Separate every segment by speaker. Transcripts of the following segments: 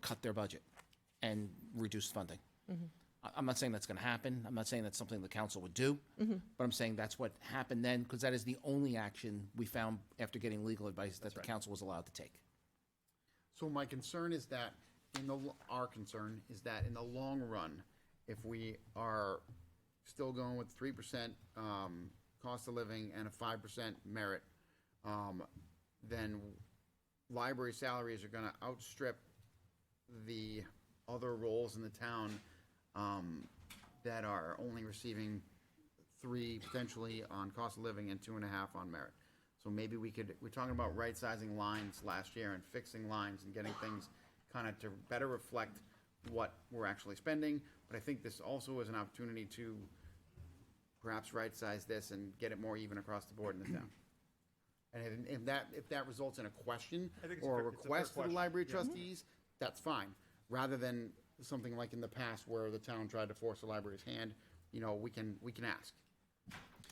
Speaker 1: cut their budget and reduce funding.
Speaker 2: Mm-hmm.
Speaker 1: I- I'm not saying that's going to happen. I'm not saying that's something the council would do.
Speaker 2: Mm-hmm.
Speaker 1: But I'm saying that's what happened then, because that is the only action we found after getting legal advice that the council was allowed to take.
Speaker 2: So my concern is that, in the, l- our concern is that in the long run, if we are still going with three percent, um, cost of living and a five percent merit, um, then library salaries are gonna outstrip the other roles in the town, um, that are only receiving three potentially on cost of living and two and a half on merit. So maybe we could, we're talking about right-sizing lines last year and fixing lines and getting things kind of to better reflect what we're actually spending. But I think this also is an opportunity to perhaps right-size this and get it more even across the board in the town. And if- if that, if that results in a question
Speaker 3: I think it's a
Speaker 2: or a
Speaker 3: fair- it's a fair
Speaker 2: request to the
Speaker 3: question,
Speaker 2: library trustees, that's fine. Rather than something like in the past where the town tried to force the library's hand, you know, we can, we can ask.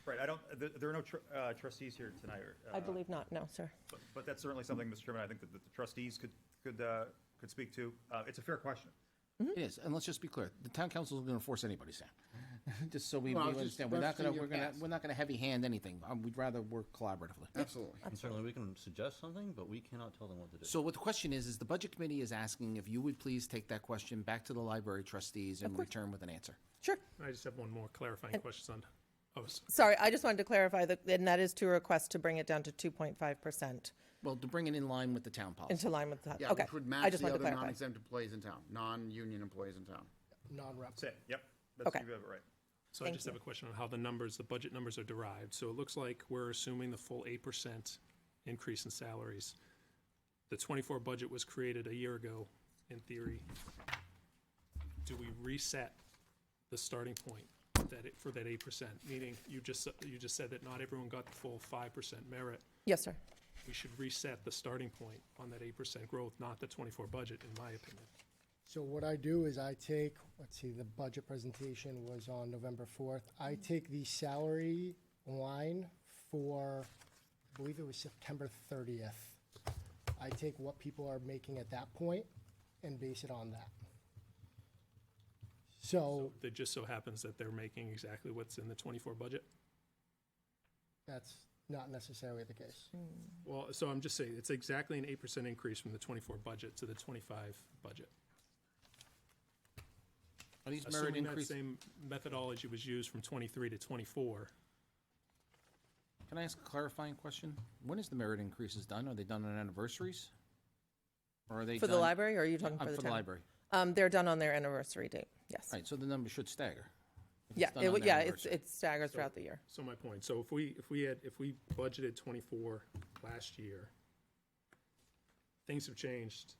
Speaker 3: Right, I don't, there, there are no tr- uh, trustees here tonight. or,
Speaker 4: I
Speaker 3: uh,
Speaker 4: believe not, no, sir.
Speaker 3: but- But that's certainly something, Mr. Chairman, I think that the trustees could, could, uh, could speak to. Uh, It's a fair question.
Speaker 2: Mm-hmm.
Speaker 1: It is, and let's just be clear, the town council isn't going to force anybody's hand. Just so we we
Speaker 2: Well, I was just
Speaker 1: understand, we're not going to,
Speaker 2: referencing
Speaker 1: we're
Speaker 2: your
Speaker 1: going to,
Speaker 2: past.
Speaker 1: we're not going to heavy hand anything. Um, We'd rather work collaboratively.
Speaker 2: Absolutely.
Speaker 5: And certainly, we can suggest something, but we cannot tell them what to do.
Speaker 1: So what the question is, is the budget committee is asking if you would please take that question back to the library trustees and return with an answer.
Speaker 4: Sure.
Speaker 6: I just have one more clarifying question on, oh,
Speaker 4: Sorry, I just wanted to clarify that, and that is to request to bring it down to 2.5%
Speaker 1: Well, to bring it in line with the town policy.
Speaker 4: into line with that.
Speaker 2: Yeah,
Speaker 4: Okay.
Speaker 2: which would
Speaker 4: I
Speaker 2: match
Speaker 4: just
Speaker 2: the
Speaker 4: wanted to
Speaker 2: other
Speaker 4: clarify.
Speaker 2: non-exempt employees in town, non-union employees in town.
Speaker 7: non-rep.
Speaker 3: That's it, yep. That's,
Speaker 4: Okay.
Speaker 3: you have it right.
Speaker 6: so I
Speaker 4: Thank
Speaker 6: just have a question on how the numbers, the budget numbers are derived. So it looks like we're assuming the full eight percent increase in salaries. The twenty-four budget was created a year ago, in theory. Do we reset the starting point that it, for that eight percent? Meaning, you just, you just said that not everyone got the full five percent merit.
Speaker 4: Yes, sir.
Speaker 6: We should reset the starting point on that eight percent growth, not the twenty-four budget, in my opinion.
Speaker 7: So what I do is I take, let's see, the budget presentation was on November fourth. I take the salary line for, I believe it was September thirtieth. I take what people are making at that point and base it on that. So
Speaker 6: That just so happens that they're making exactly what's in the twenty-four budget?
Speaker 7: that's not necessarily the case.
Speaker 6: Well, so I'm just saying, it's exactly an eight percent increase from the twenty-four budget to the twenty-five budget.
Speaker 1: Are these merit
Speaker 6: Assuming that
Speaker 1: increases?
Speaker 6: same methodology was used from twenty-three to twenty-four,
Speaker 1: Can I ask a clarifying question? When is the merit increases done? Are they done on anniversaries? Or are they
Speaker 4: For the
Speaker 1: done-
Speaker 4: library, or are you talking
Speaker 1: Uh,
Speaker 4: for the town?
Speaker 1: For the library.
Speaker 4: Um, they're done on their anniversary date, yes.
Speaker 1: Right, so the number should stagger. if it's
Speaker 4: Yeah,
Speaker 1: done
Speaker 4: it,
Speaker 1: on
Speaker 4: would- yeah, it's-
Speaker 1: anniversary.
Speaker 4: it staggers throughout the year.
Speaker 6: so my point, so if we, if we had, if we budgeted twenty-four last year, things have changed,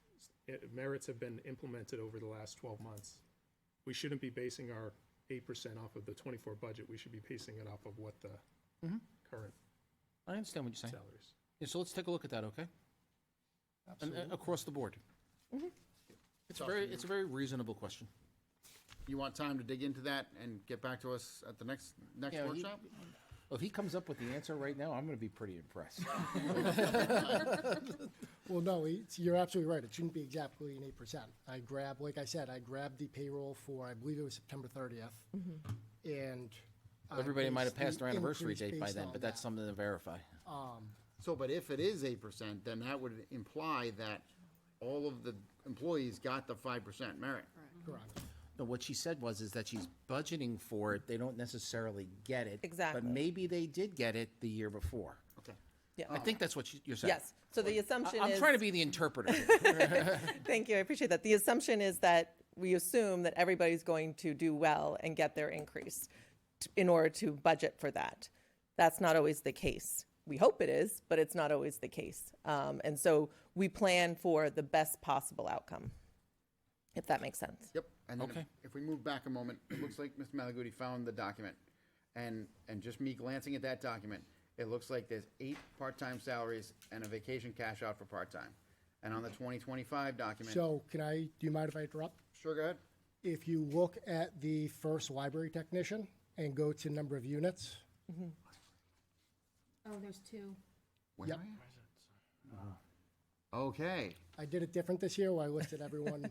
Speaker 6: Eh, merits have been implemented over the last twelve months. We shouldn't be basing our eight percent off of the twenty-four budget, we should be basing it off of what the current
Speaker 1: I understand what you're saying.
Speaker 6: salaries.
Speaker 1: Yeah, so let's take a look at that, okay? And, uh, across the board.
Speaker 4: Mm-hmm.
Speaker 1: It's a very, it's a very reasonable question.
Speaker 2: You want time to dig into that and get back to us at the next, next
Speaker 1: Yeah, he-
Speaker 2: workshop?
Speaker 1: Well, If he comes up with the answer right now, I'm gonna be pretty impressed.
Speaker 7: Well, no, it's, you're absolutely right. It shouldn't be exactly an eight percent. I grabbed, like I said, I grabbed the payroll for, I believe it was September thirtieth. And. I
Speaker 1: Everybody might have
Speaker 7: based
Speaker 1: passed
Speaker 7: the
Speaker 1: their anniversary
Speaker 7: increase
Speaker 1: date by
Speaker 7: based
Speaker 1: then,
Speaker 7: on
Speaker 1: but that's
Speaker 7: that.
Speaker 1: something to verify.
Speaker 2: So, but if it is eight percent, then that would imply that all of the employees got the five percent merit.
Speaker 7: Correct.
Speaker 1: No, what she said was is that she's budgeting for it. They don't necessarily get it.
Speaker 4: Exactly.
Speaker 1: But maybe they did get it the year before.
Speaker 2: Okay.
Speaker 1: I think that's what she- you're saying.
Speaker 4: Yes, so the
Speaker 1: I-
Speaker 4: assumption is.
Speaker 1: I'm trying to be the interpreter.
Speaker 4: Thank you, I appreciate that. The assumption is that we assume that everybody's going to do well and get their increase t- in order to budget for that. That's not always the case. We hope it is, but it's not always the case. Um, And so we plan for the best possible outcome, if that makes sense.
Speaker 2: Yep, and then if-
Speaker 1: Okay.
Speaker 2: if we move back a moment, it looks like Mr. Malaguti found the document. And, and just me glancing at that document, it looks like there's eight part-time salaries and a vacation cash out for part-time. And on the twenty twenty-five document,
Speaker 7: So can I, do you mind if I interrupt?
Speaker 2: sure, go ahead.
Speaker 7: If you look at the first library technician and go to number of units,
Speaker 8: Oh, there's two.
Speaker 7: Yep.
Speaker 2: Okay.
Speaker 7: I did it different this year where I listed everyone